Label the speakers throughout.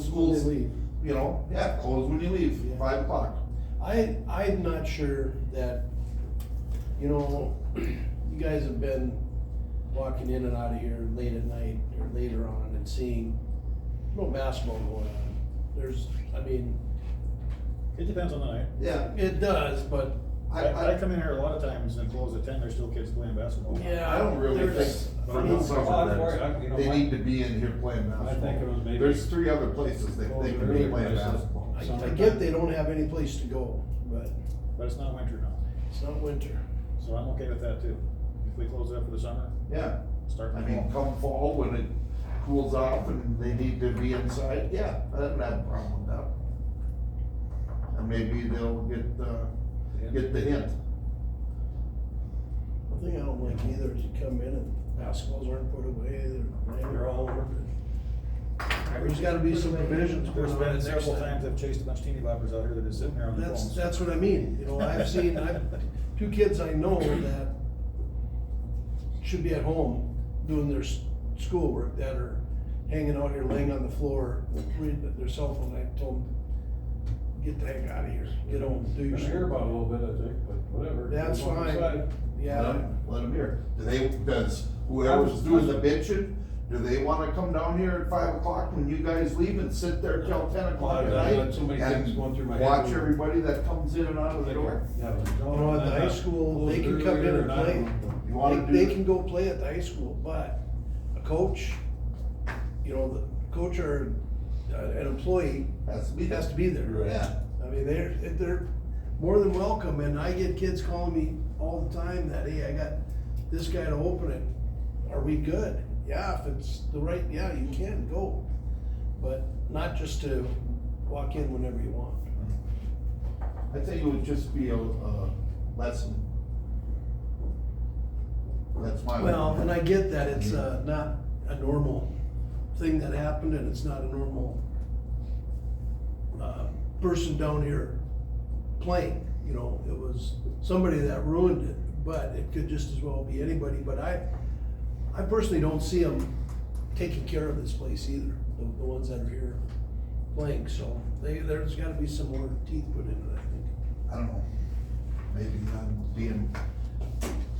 Speaker 1: schools,
Speaker 2: They leave.
Speaker 1: you know, yeah, close when you leave,
Speaker 2: Yeah.
Speaker 1: five o'clock.
Speaker 2: I, I'm not sure that, you know, you guys have been walking in and out of here late at night or later on and seeing no basketball going on. There's, I mean,
Speaker 3: It depends on the night.
Speaker 1: Yeah,
Speaker 2: it does, but
Speaker 1: I,
Speaker 3: I, I
Speaker 1: I,
Speaker 3: come in here a lot of times and close at ten, there's still kids playing basketball.
Speaker 2: yeah.
Speaker 1: I don't really think
Speaker 2: there's-
Speaker 1: for
Speaker 2: I mean,
Speaker 1: the summer
Speaker 4: I- you
Speaker 1: that
Speaker 4: know,
Speaker 1: they
Speaker 4: my-
Speaker 1: need to be in here playing
Speaker 4: I think it
Speaker 1: basketball.
Speaker 4: was maybe.
Speaker 1: There's three other places that they can be
Speaker 4: Earlier
Speaker 1: playing
Speaker 4: places.
Speaker 1: basketball.
Speaker 2: I I get they don't have any place to go, but
Speaker 3: But it's not winter now,
Speaker 2: it's not winter.
Speaker 3: so I'm okay with that too. If we close it up for the summer,
Speaker 1: Yeah,
Speaker 3: start
Speaker 1: I
Speaker 3: in
Speaker 1: mean,
Speaker 3: the fall.
Speaker 1: come fall when it cools off and they need to be inside, yeah, I don't have a problem with that. And maybe they'll get, uh, get the hint.
Speaker 2: One thing I don't like either is you come in and basketballs aren't put away, they're,
Speaker 3: They're all over.
Speaker 2: There's gotta be some provisions going
Speaker 3: There's
Speaker 2: on
Speaker 3: been
Speaker 2: next
Speaker 3: several
Speaker 2: time.
Speaker 3: times I've chased a bunch of teeny boppers out here that is sitting there on the
Speaker 2: That's,
Speaker 3: phones.
Speaker 2: that's what I mean, you know, I've seen, I've, two kids I know that should be at home doing their s- schoolwork that are hanging out here, laying on the floor, reading their cell phone, I told them, get the heck out of here, get home, do your.
Speaker 4: Gonna hear about it a little bit, I think, but whatever.
Speaker 2: That's
Speaker 4: We'll
Speaker 2: fine.
Speaker 4: decide.
Speaker 2: Yeah,
Speaker 1: Let them hear. Do they, does whoever's doing the bitching, do they wanna come down here at five o'clock when you guys leave and sit there till ten o'clock at
Speaker 4: Well, I've got
Speaker 1: night?
Speaker 4: so many things
Speaker 1: And
Speaker 4: going through my head.
Speaker 1: watch everybody that comes in and out of the door?
Speaker 4: Yeah, but-
Speaker 2: You know, at the high school, they can come in and play.
Speaker 1: You
Speaker 2: They,
Speaker 1: wanna do?
Speaker 2: they can go play at the high school, but a coach, you know, the coach or uh, an employee
Speaker 1: Has to be.
Speaker 2: has to be there.
Speaker 1: Yeah,
Speaker 2: I mean, they're, they're more than welcome, and I get kids calling me all the time that, hey, I got this guy to open it. Are we good? Yeah, if it's the right, yeah, you can go, but not just to walk in whenever you want.
Speaker 1: I think it would just be a, a lesson. That's my.
Speaker 2: Well, and I get that it's uh, not a normal thing that happened and it's not a normal uh, person down here playing, you know, it was somebody that ruined it, but it could just as well be anybody, but I, I personally don't see them taking care of this place either, the, the ones that are here playing, so they, there's gotta be some more teeth put into it, I think.
Speaker 1: I don't know. Maybe I'm being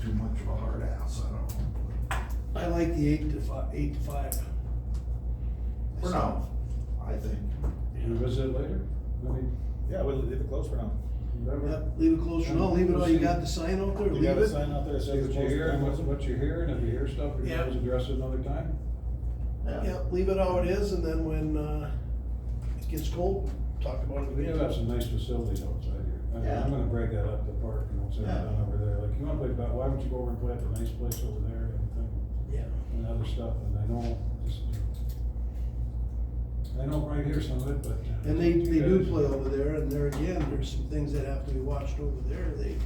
Speaker 1: too much of a hard ass, I don't know.
Speaker 2: I like the eight to five, eight to five.
Speaker 1: For now, I think.
Speaker 4: Can we visit later? I mean,
Speaker 3: Yeah, we'll leave it closed for now.
Speaker 4: remember,
Speaker 2: Yep, leave it close for now, leave it all, you got the sign out there,
Speaker 3: You
Speaker 2: leave
Speaker 3: got a
Speaker 2: it.
Speaker 3: sign out there that
Speaker 4: see
Speaker 3: says
Speaker 4: what
Speaker 3: it's
Speaker 4: you
Speaker 3: closed.
Speaker 4: hear and what, what you hear, and if you hear stuff, you
Speaker 2: Yeah.
Speaker 4: always address it another time.
Speaker 2: Yeah, leave it how it is, and then when, uh, it gets cold, talk about it
Speaker 4: We do have
Speaker 2: again.
Speaker 4: some nice facilities outside here. I mean,
Speaker 1: Yeah.
Speaker 4: I'm gonna break that up, the park, and what's
Speaker 1: Yeah.
Speaker 4: down over there, like, you wanna play, ba- why don't you go over and play at the nice place over there and uh, everything?
Speaker 2: Yeah.
Speaker 4: and other stuff, and I know, just, I know right here some of it, but. uh,
Speaker 2: And they, they do
Speaker 4: because-
Speaker 2: play over there, and there again, there's some things that have to be watched over there, they,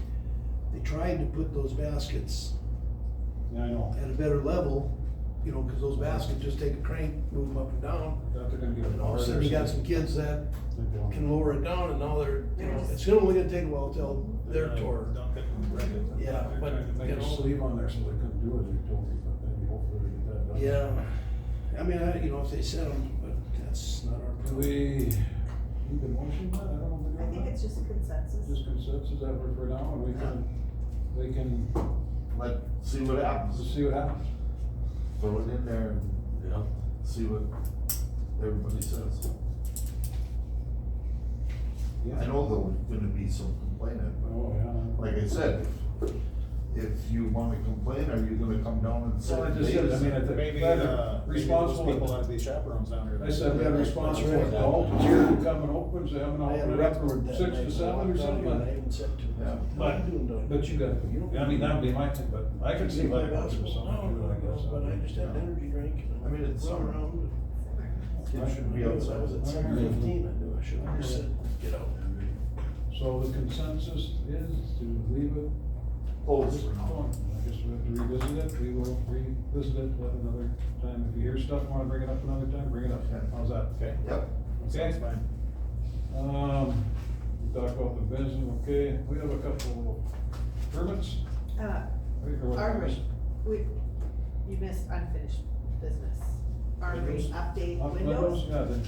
Speaker 2: they tried to put those baskets
Speaker 4: Yeah, I know,
Speaker 2: at a better level, you know, cause those baskets just take a crank, move them up and down,
Speaker 4: I thought they're gonna get a.
Speaker 2: and all of a
Speaker 4: bar
Speaker 2: sudden
Speaker 4: there,
Speaker 2: you got
Speaker 4: so
Speaker 2: some kids that
Speaker 4: they don't.
Speaker 2: can lower it down, and now they're, you know, it's gonna only gonna take a while till they're tore.
Speaker 3: Dunk it and break it.
Speaker 2: Yeah,
Speaker 4: They're
Speaker 2: but,
Speaker 4: trying to
Speaker 2: you
Speaker 4: make a
Speaker 2: know-
Speaker 4: sleeve on there so they couldn't do it, they told me, but maybe hopefully they get that done.
Speaker 2: Yeah, I mean, I, you know, if they set them, but that's not our
Speaker 4: Do
Speaker 2: problem.
Speaker 4: we, need the motion, on that? I don't know. if we're
Speaker 5: I think
Speaker 4: doing
Speaker 5: it's just a
Speaker 4: that. Just
Speaker 5: consensus.
Speaker 4: consensus that we're for now, and we can, we can
Speaker 1: Let, see what happens,
Speaker 4: see what happens.
Speaker 1: throw it in there and, you know, see what everybody says. I know there's gonna be some complaining,
Speaker 4: Oh, yeah.
Speaker 1: but like I said, if, if you wanna complain, are you gonna come down and say?
Speaker 4: Well, I just said, I mean, I think.
Speaker 3: Maybe, uh, maybe those
Speaker 4: Responsible.
Speaker 3: people out of these chaperones down here.
Speaker 4: I said, we have a responsible
Speaker 2: That's right.
Speaker 4: adult here who come and opens, they have an
Speaker 2: I had a
Speaker 4: open up
Speaker 2: record
Speaker 4: from
Speaker 2: that
Speaker 4: six
Speaker 2: night,
Speaker 4: to
Speaker 2: so I
Speaker 4: seven or
Speaker 2: walked out
Speaker 4: something.
Speaker 2: here and I even said to him,
Speaker 1: Yeah.
Speaker 2: "What are you doing down
Speaker 4: But you got,
Speaker 2: don't-
Speaker 4: I mean, that'd be my thing, but I could see why
Speaker 2: here?"
Speaker 4: it was or something, too, I guess.
Speaker 2: No, no, no, But I just had an energy drink. and
Speaker 1: I mean, it's
Speaker 2: run
Speaker 1: summer.
Speaker 2: around.
Speaker 1: Kids should be
Speaker 2: I was
Speaker 1: outside.
Speaker 2: at seven fifteen, I knew I should have just said, get out.
Speaker 4: So the consensus is to leave it
Speaker 1: Close for now.
Speaker 4: alone. I guess we have to revisit it, we will revisit it at another time. If you hear stuff, wanna bring it up another time, bring it up.
Speaker 1: Yeah.
Speaker 4: How's that?
Speaker 3: Okay,
Speaker 1: Yep,
Speaker 3: sounds fine.
Speaker 4: Um, we talked about the business, okay, we have a couple of permits.
Speaker 5: Uh,
Speaker 4: Wait, or what?
Speaker 5: Armory, we, you missed unfinished business. Armory
Speaker 4: Windows?
Speaker 5: update
Speaker 4: Up
Speaker 5: windows.
Speaker 4: Yeah, the